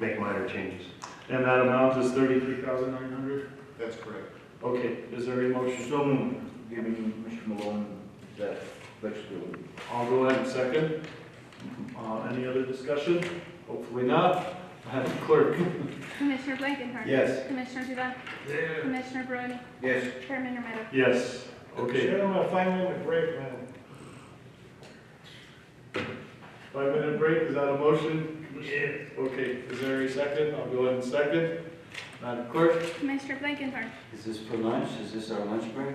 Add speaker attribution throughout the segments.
Speaker 1: make minor changes.
Speaker 2: And that amount is thirty-three thousand nine hundred?
Speaker 1: That's correct.
Speaker 2: Okay, is there a motion?
Speaker 3: So moved, giving Mr. Malone that flexibility.
Speaker 2: I'll go ahead and second. Uh, any other discussion? Hopefully not. Madam Clerk?
Speaker 4: Commissioner Blankenhorn.
Speaker 3: Yes.
Speaker 4: Commissioner Duda. Commissioner Barone.
Speaker 3: Yes.
Speaker 4: Chairman Romero.
Speaker 2: Yes, okay.
Speaker 5: Gentlemen, five minute break, man.
Speaker 2: Five-minute break, is that a motion? Yes. Okay, is there a second? I'll go ahead and second. Madam Clerk?
Speaker 4: Commissioner Blankenhorn.
Speaker 3: Is this for lunch? Is this our lunch break?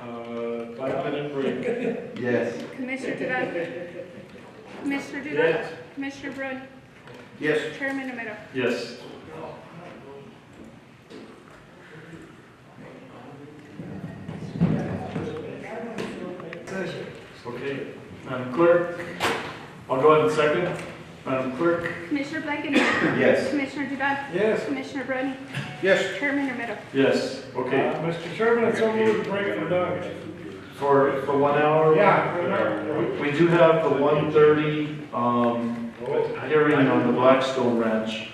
Speaker 2: Uh, five-minute break.
Speaker 3: Yes.
Speaker 4: Commissioner Duda. Commissioner Duda. Commissioner Barone.
Speaker 3: Yes.
Speaker 4: Chairman Romero.
Speaker 2: Yes. Okay, Madam Clerk? I'll go ahead and second. Madam Clerk?
Speaker 4: Commissioner Blankenhorn.
Speaker 3: Yes.
Speaker 4: Commissioner Duda.
Speaker 5: Yes.
Speaker 4: Commissioner Barone.
Speaker 3: Yes.
Speaker 4: Chairman Romero.
Speaker 2: Yes, okay.
Speaker 5: Mr. Chairman, it's a move to break for Doug.
Speaker 2: For, for one hour?
Speaker 5: Yeah, for an hour.
Speaker 2: We do have the one thirty, um, hearing on the Blackstone Ranch.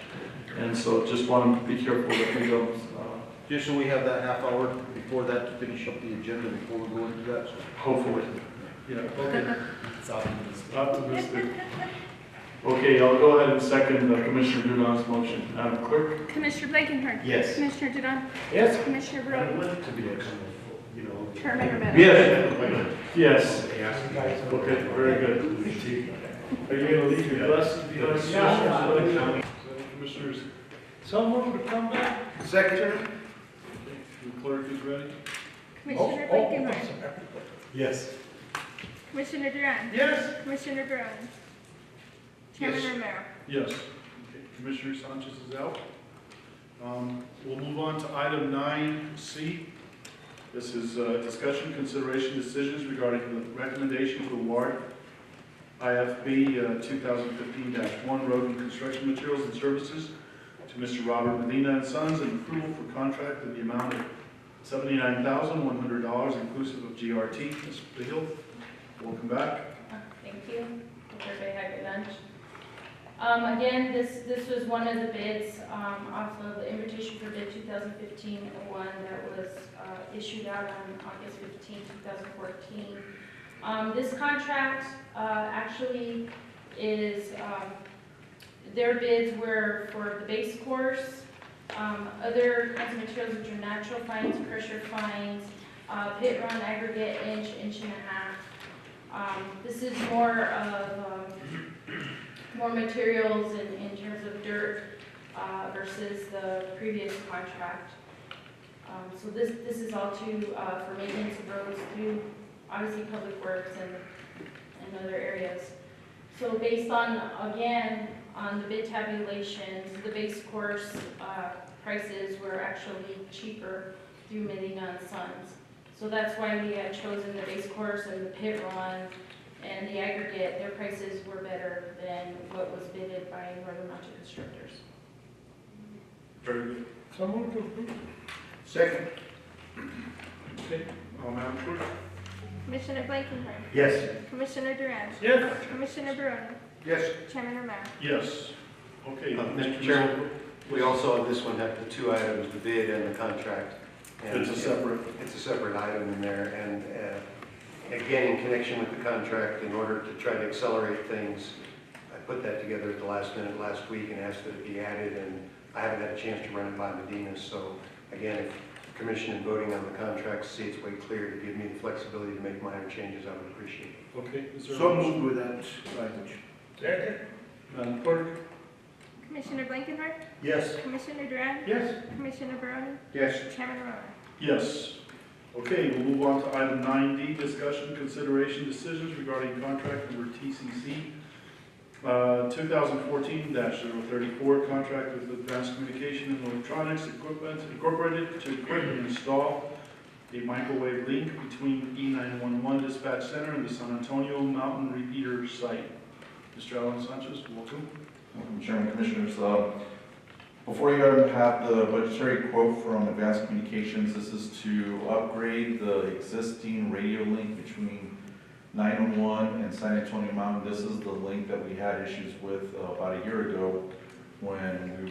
Speaker 2: And so just want to be careful that we don't, uh,
Speaker 3: Just so we have that half hour before that to finish up the agenda before we go into that.
Speaker 2: hopefully. Yeah, okay. Optimistic. Okay, I'll go ahead and second uh, Commissioner Dudon's motion. Madam Clerk?
Speaker 4: Commissioner Blankenhorn.
Speaker 3: Yes.
Speaker 4: Commissioner Duda.
Speaker 5: Yes.
Speaker 4: Commissioner
Speaker 1: I'd
Speaker 3: Oh,
Speaker 4: Barone.
Speaker 1: like to be a kind of, you know.
Speaker 4: Chairman Romero.
Speaker 2: Yes. Yes,
Speaker 1: Yes.
Speaker 2: okay, very good. Are you going to leave your desk? you know, Commissioners? Commissioners,
Speaker 5: So move to come back.
Speaker 3: Secretary?
Speaker 2: the clerk is ready.
Speaker 4: Commissioner
Speaker 5: Oh, oh,
Speaker 4: Blankenhorn.
Speaker 1: Yes.
Speaker 4: Commissioner Duran.
Speaker 5: Yes.
Speaker 4: Commissioner Barone. Chairman
Speaker 3: Yes.
Speaker 4: Romero.
Speaker 2: Yes. Okay, Commissioner Sanchez is out. Um, We'll move on to item nine C. This is uh, discussion, consideration, decisions regarding the recommendation to award IFB uh, 2015-1 Road and Construction Materials and Services to Mr. Robert Medina and Sons and approval for contract in the amount of $79,100 inclusive of GRT. Mr. Beal, welcome back.
Speaker 6: Thank you. Hope everybody had your lunch. Um, again, this, this was one of the bids, um, off of the invitation for bid 2015-01 that was, uh, issued out on August 15, thousand fourteen. Um, this contract, uh, actually is, um, their bids were for the base course, um, other kinds of materials which are natural fines, pressure fines, uh, pit run aggregate inch, inch and a half, um, This is more of, um, more materials in, in terms of dirt uh, versus the previous contract. Um, So this, this is all to, uh, for maintenance of roads through, obviously, public works and, and other areas. So based on, again, on the bid tabulations, the base course uh, prices were actually cheaper through Medina and Sons. So that's why we had chosen the base course and the pit run and the aggregate, their prices were better than what was bidded by Northern Mountain Constructors.
Speaker 2: Very good.
Speaker 5: So move to approve.
Speaker 3: Second?
Speaker 2: Okay, uh, Madam Clerk?
Speaker 4: Commissioner Blankenhorn.
Speaker 3: Yes.
Speaker 4: Commissioner Duran.
Speaker 5: Yes.
Speaker 4: Commissioner Barone.
Speaker 3: Yes.
Speaker 4: Chairman Romero.
Speaker 2: Yes. Okay.
Speaker 1: Uh, Mr.
Speaker 2: Mr.
Speaker 1: Chairman, We also, on this one, have the two items, the bid and the contract. And
Speaker 2: It's a separate,
Speaker 1: It's a separate item in there, and uh, again, in connection with the contract, in order to try to accelerate things, I put that together at the last minute last week and asked that it be added, and I haven't had a chance to run it by Medina, so again, if the commission in voting on the contract see it's way clear to give me the flexibility to make minor changes, I would appreciate it.
Speaker 2: okay. Is there a
Speaker 3: So
Speaker 2: motion?
Speaker 3: moved with that language.
Speaker 2: Madam Clerk?
Speaker 4: Commissioner Blankenhorn.
Speaker 3: Yes.
Speaker 4: Commissioner Duran.
Speaker 5: Yes.
Speaker 4: Commissioner Barone.
Speaker 3: Yes.
Speaker 4: Chairman Romero.
Speaker 2: Yes. Okay, we'll move on to item nine D, discussion, consideration, decisions regarding contract number TCC uh, two thousand fourteen 34 contract with Advanced Communication and Electronics Equipment Incorporated to equip and install a microwave link between E nine one one dispatch center and the San Antonio Mountain Repeater Site. Mr. Alan Sanchez, welcome.
Speaker 7: Welcome, Chairman Commissioners. Uh, Before you have the budgetary quote from Advanced Communications, this is to upgrade the existing radio link between 901 and San Antonio Mountain. This is the link that we had issues with uh, about a year ago when we